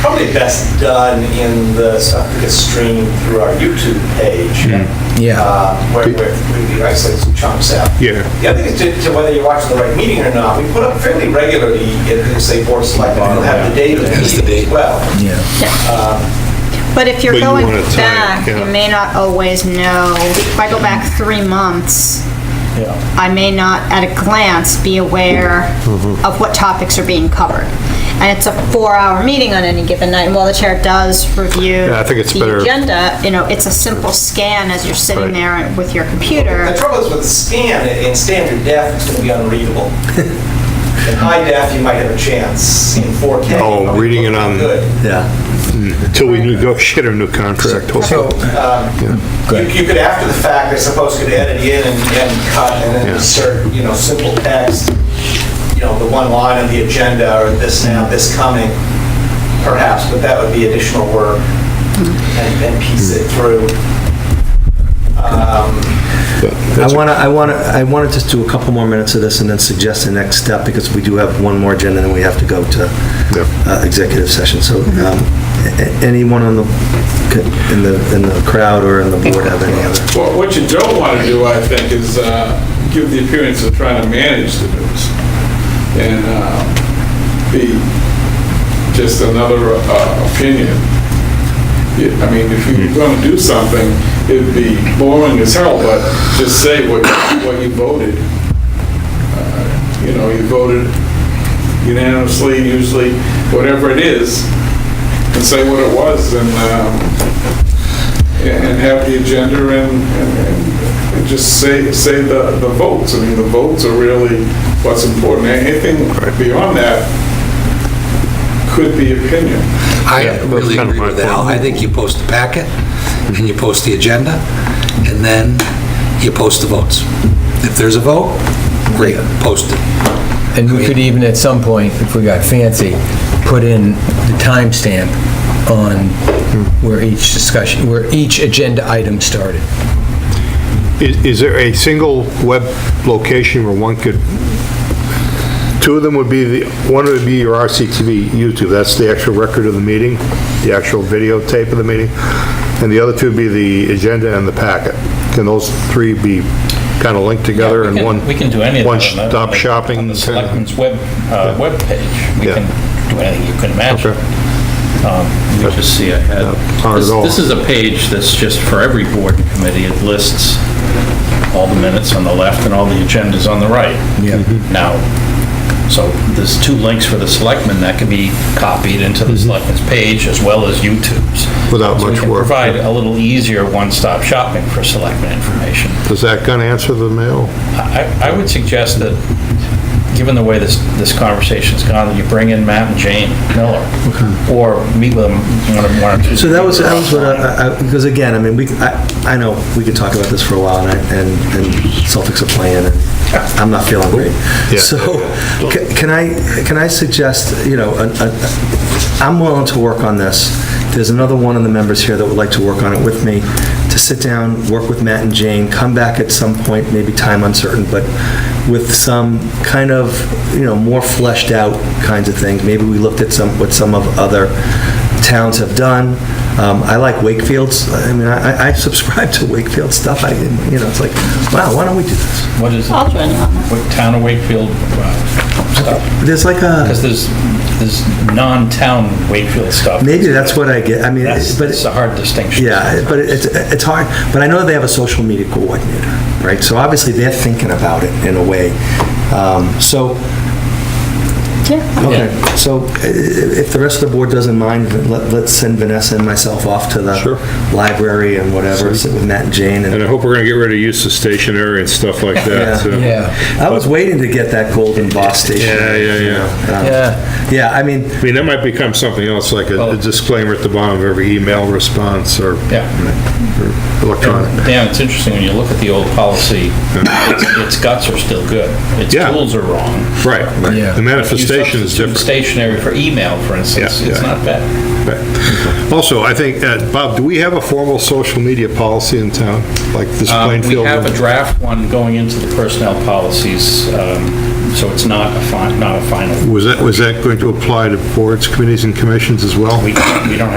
probably best done in the stuff that gets streamed through our YouTube page. Mm. Yeah. uh, Where where we isolate some chunks out. Yeah. The other thing is to- to whether you're watching the right meeting or not, we put up fairly regularly, uh, say, board of selectmen, we'll have the date of the meeting as well. Yeah. But if But you're you going wanna tie it, back, yeah. you may not always know. If I go back three months, I may not at a glance be aware of what topics are being covered. And it's a four-hour meeting on any given night, and while the chair does review Yeah, I think it's better- the agenda, you know, it's a simple scan as you're sitting Right. there with your computer. The trouble is with the scan, in standard def, it's going to be unreadable. In high def, you might have a chance. In 4K. Oh, it'll be reading it on- Good. Yeah. Until we negotiate a new contract. So, You you could, after the fact, I suppose, could edit in and and cut and then Yeah. insert, you know, simple text, you know, the one line on the agenda, or this now, this coming, perhaps, but that would be additional work, and and piece it through. Um, I want to, I want to, I wanted to do a couple more minutes of this and then suggest the next step, because we do have one more agenda, and then we have to go to Yep. uh, executive session. So um, a- a- anyone on the, in the, in the crowd or in the board have any other? Well, what you don't want to do, I think, is uh, give the appearance of trying to manage the news and uh, be just another uh, opinion. Yeah, I mean, if you're going to do something, it'd be boring as hell, but just say what what you voted. Uh, You know, you voted unanimously, usually, whatever it is, and say what it was, and um, and have the agenda and, and and just say, say the, the votes. I mean, the votes are really what's important. Anything beyond that could be opinion. Yeah, I that's really kind of agree my with Al. point. I think you post the packet, and you post the agenda, and then you post the votes. If there's a vote, great, post it. And we could even, at some point, if we got fancy, put in the timestamp on where each discussion, where each agenda item started. Is is there a single web location where one could, two of them would be, the one would be your RCTV YouTube, that's the actual record of the meeting, the actual videotape of the meeting, and the other two would be the agenda and the packet. Can those three be kind of linked together in We can- one? We can do any of that. One on the- stop shopping. On the kinda- selectmen's web, uh, webpage. We Yeah. can do anything you can imagine. Okay. Um, Let me just see ahead. Not at This- all. This is a page that's just for every board and committee. It lists all the minutes on the left and all the agendas on the right. Yeah. Mm-hmm. Now, so there's two links for the selectmen that can be copied into the selectmen's page as well as YouTube's. Mm-hmm. Without So we much can work. Provide a little easier one-stop shopping for selectmen information. Does that kind of answer the mail? I, I would suggest that, given the way this, this conversation's gone, that you bring in Matt and Jane Miller, or meet with them one or- one or two. So that was, that was what I, I- because again, I mean, we, I, I know we could talk about this for a while, and, I- and and Celtics are playing, and I'm not feeling great. Yeah. So, ca- can I, can I suggest, you know, a- a- I'm willing to work on this. There's another one of the members here that would like to work on it with me, to sit down, work with Matt and Jane, come back at some point, maybe time uncertain, but with some kind of, you know, more fleshed out kinds of things. Maybe we looked at some, what some of other towns have done. Um, I like Wakefield's, I mean, I I subscribe to Wakefield stuff, I, you know, it's like, wow, why don't we do this? What is it? I'll join you on that. What Town of Wakefield uh, stuff? There's like a, Because there's, there's non-town Wakefield stuff. maybe that's what I get, I mean, That's, but, that's a hard distinction. yeah, but it's it's hard, but I know they have a social media coordinator, right? So obviously, they're thinking about it in a way. Um, So, Yeah. okay, so i- i- if the rest of the board doesn't mind, let- let's send Vanessa and myself off to the Sure. library and whatever, sit with Matt and Jane and And I hope we're going to get rid of use of stationery and stuff like Yeah. that, too. Yeah, I was waiting to get that golden boss station. Yeah, yeah, you yeah. know, um, yeah. Yeah, I mean, I mean, that might become something else, like a a disclaimer at the bottom of every email response or Oh. Yeah. electronic. Dan, it's interesting, when you look at the old policy, its- its guts are still good. Its Yeah. tools are wrong. Right, Yeah. the manifestation is You substitute different. Stationary for email, for instance, Yeah, it's yeah. not bad. Right. Also, I think, uh, Bob, do we have a formal social media policy in town, like this Um, We Plainfield? have one? a draft one going into the personnel policies um, So it's not a fi, not a final. Was that, was that going to apply to boards, committees, and commissions as well? We, we don't